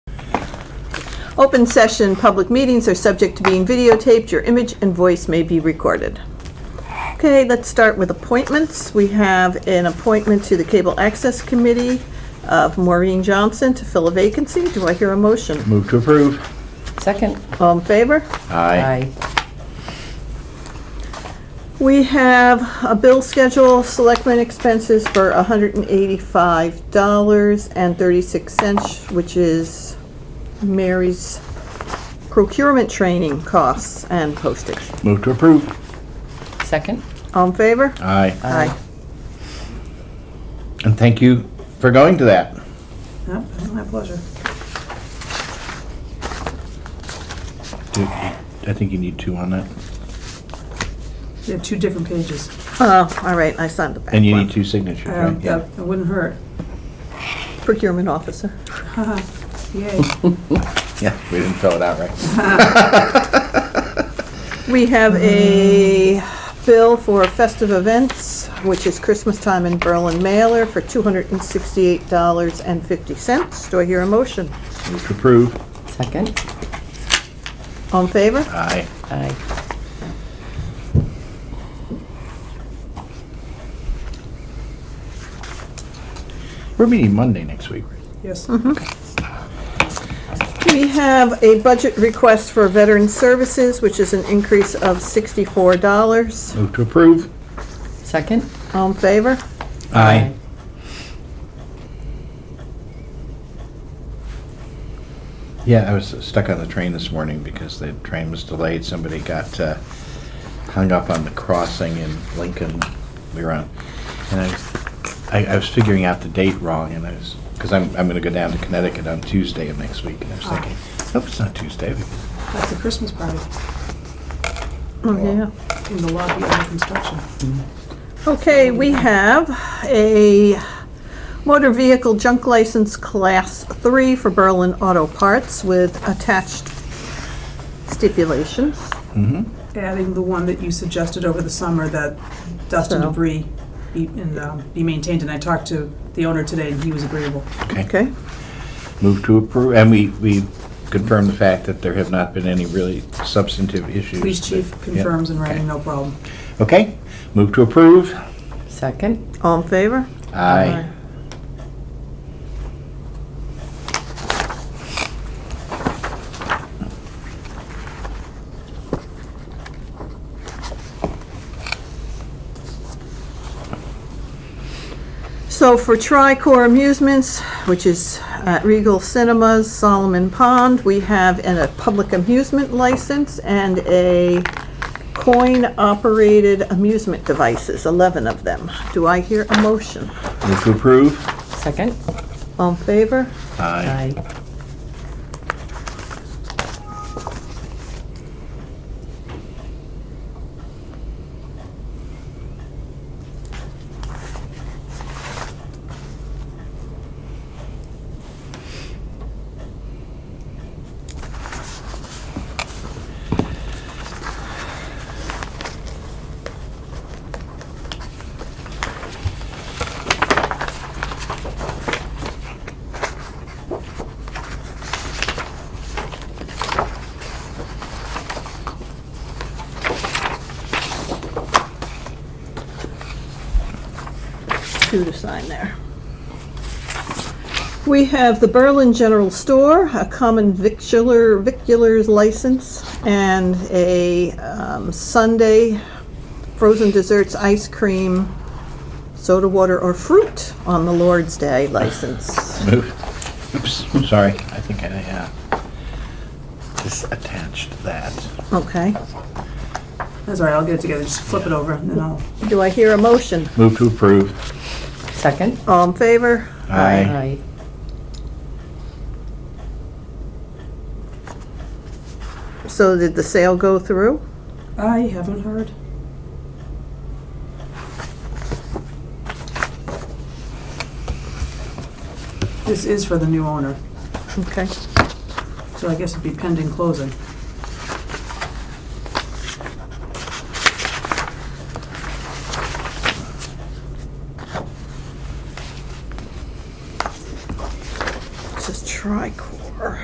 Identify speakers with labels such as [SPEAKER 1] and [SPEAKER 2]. [SPEAKER 1] Open session, public meetings are subject to being videotaped. Your image and voice may be recorded. Okay, let's start with appointments. We have an appointment to the Cable Access Committee of Maureen Johnson to fill a vacancy. Do I hear a motion?
[SPEAKER 2] Move to approve.
[SPEAKER 3] Second?
[SPEAKER 1] All in favor?
[SPEAKER 2] Aye.
[SPEAKER 1] We have a bill schedule, selectmen expenses for $185.36, which is Mary's procurement training costs and postage.
[SPEAKER 2] Move to approve.
[SPEAKER 3] Second?
[SPEAKER 1] All in favor?
[SPEAKER 2] Aye.
[SPEAKER 1] Aye.
[SPEAKER 2] And thank you for going to that.
[SPEAKER 1] Yep, my pleasure.
[SPEAKER 2] I think you need two on that.
[SPEAKER 4] You have two different pages.
[SPEAKER 1] Oh, all right, I signed the back
[SPEAKER 2] And you need
[SPEAKER 1] one.
[SPEAKER 2] two signatures,
[SPEAKER 4] Um,
[SPEAKER 2] right?
[SPEAKER 4] That that wouldn't hurt.
[SPEAKER 1] Procurement officer.
[SPEAKER 4] Yay.
[SPEAKER 2] Yeah, we didn't fill it out right.
[SPEAKER 1] We have a bill for festive events, which is Christmas time in Berlin Mailer for $268.50. Do I hear a motion?
[SPEAKER 2] Move to approve.
[SPEAKER 3] Second?
[SPEAKER 1] All in favor?
[SPEAKER 2] Aye.
[SPEAKER 3] Aye.
[SPEAKER 2] We're meeting Monday next week.
[SPEAKER 4] Yes.
[SPEAKER 2] Mm-hmm.
[SPEAKER 1] We have a budget request for veteran services, which is an increase of $64.
[SPEAKER 2] Move to approve.
[SPEAKER 3] Second?
[SPEAKER 1] All in favor?
[SPEAKER 2] Yeah, I was stuck on the train this morning because the train was delayed. Somebody got uh, hung up on the crossing in Lincoln. We were on, and I was, I, I was figuring out the date wrong, and I was because I'm I'm going to go down to Connecticut on Tuesday of next week, and I was thinking, nope, it's not Tuesday.
[SPEAKER 4] That's a Christmas party
[SPEAKER 1] Oh, yeah.
[SPEAKER 4] in the lobby under construction.
[SPEAKER 1] Okay, we have a motor vehicle junk license class three for Berlin Auto Parts with attached stipulations.
[SPEAKER 4] Adding the one that you suggested over the summer, that dust and
[SPEAKER 1] So.
[SPEAKER 4] debris be, and, um, be maintained, and I talked to the owner today, and he was agreeable.
[SPEAKER 1] Okay,
[SPEAKER 2] Move to approve, and we we confirm the fact that there have not been any really substantive issues.
[SPEAKER 4] Police chief
[SPEAKER 2] that- yeah,
[SPEAKER 4] confirms in
[SPEAKER 2] okay.
[SPEAKER 4] writing, no problem.
[SPEAKER 2] Okay, move to approve.
[SPEAKER 3] Second?
[SPEAKER 1] all in favor?
[SPEAKER 2] Aye.
[SPEAKER 1] So for Tricor Amusements, which is at Regal Cinemas Solomon Pond, we have an- a public amusement license and a coin-operated amusement devices, 11 of them. Do I hear a motion?
[SPEAKER 2] Move to approve.
[SPEAKER 3] Second?
[SPEAKER 1] All in favor?
[SPEAKER 2] Aye.
[SPEAKER 1] Two to sign there. We have the Berlin General Store, a common victular, victular's license, and a um, Sunday frozen desserts, ice cream, soda water, or fruit on the Lord's Day license.
[SPEAKER 2] Move. Oops, sorry. I think I uh, disattached that.
[SPEAKER 1] Okay.
[SPEAKER 4] That's all right, I'll get it together, just flip it over, and then I'll,
[SPEAKER 1] Do I hear a motion?
[SPEAKER 2] Move to approve.
[SPEAKER 3] Second?
[SPEAKER 1] All in favor?
[SPEAKER 2] Aye.
[SPEAKER 1] So did the sale go through?
[SPEAKER 4] I haven't heard. This is for the new owner,
[SPEAKER 1] Okay.
[SPEAKER 4] so I guess it'd be pending closing.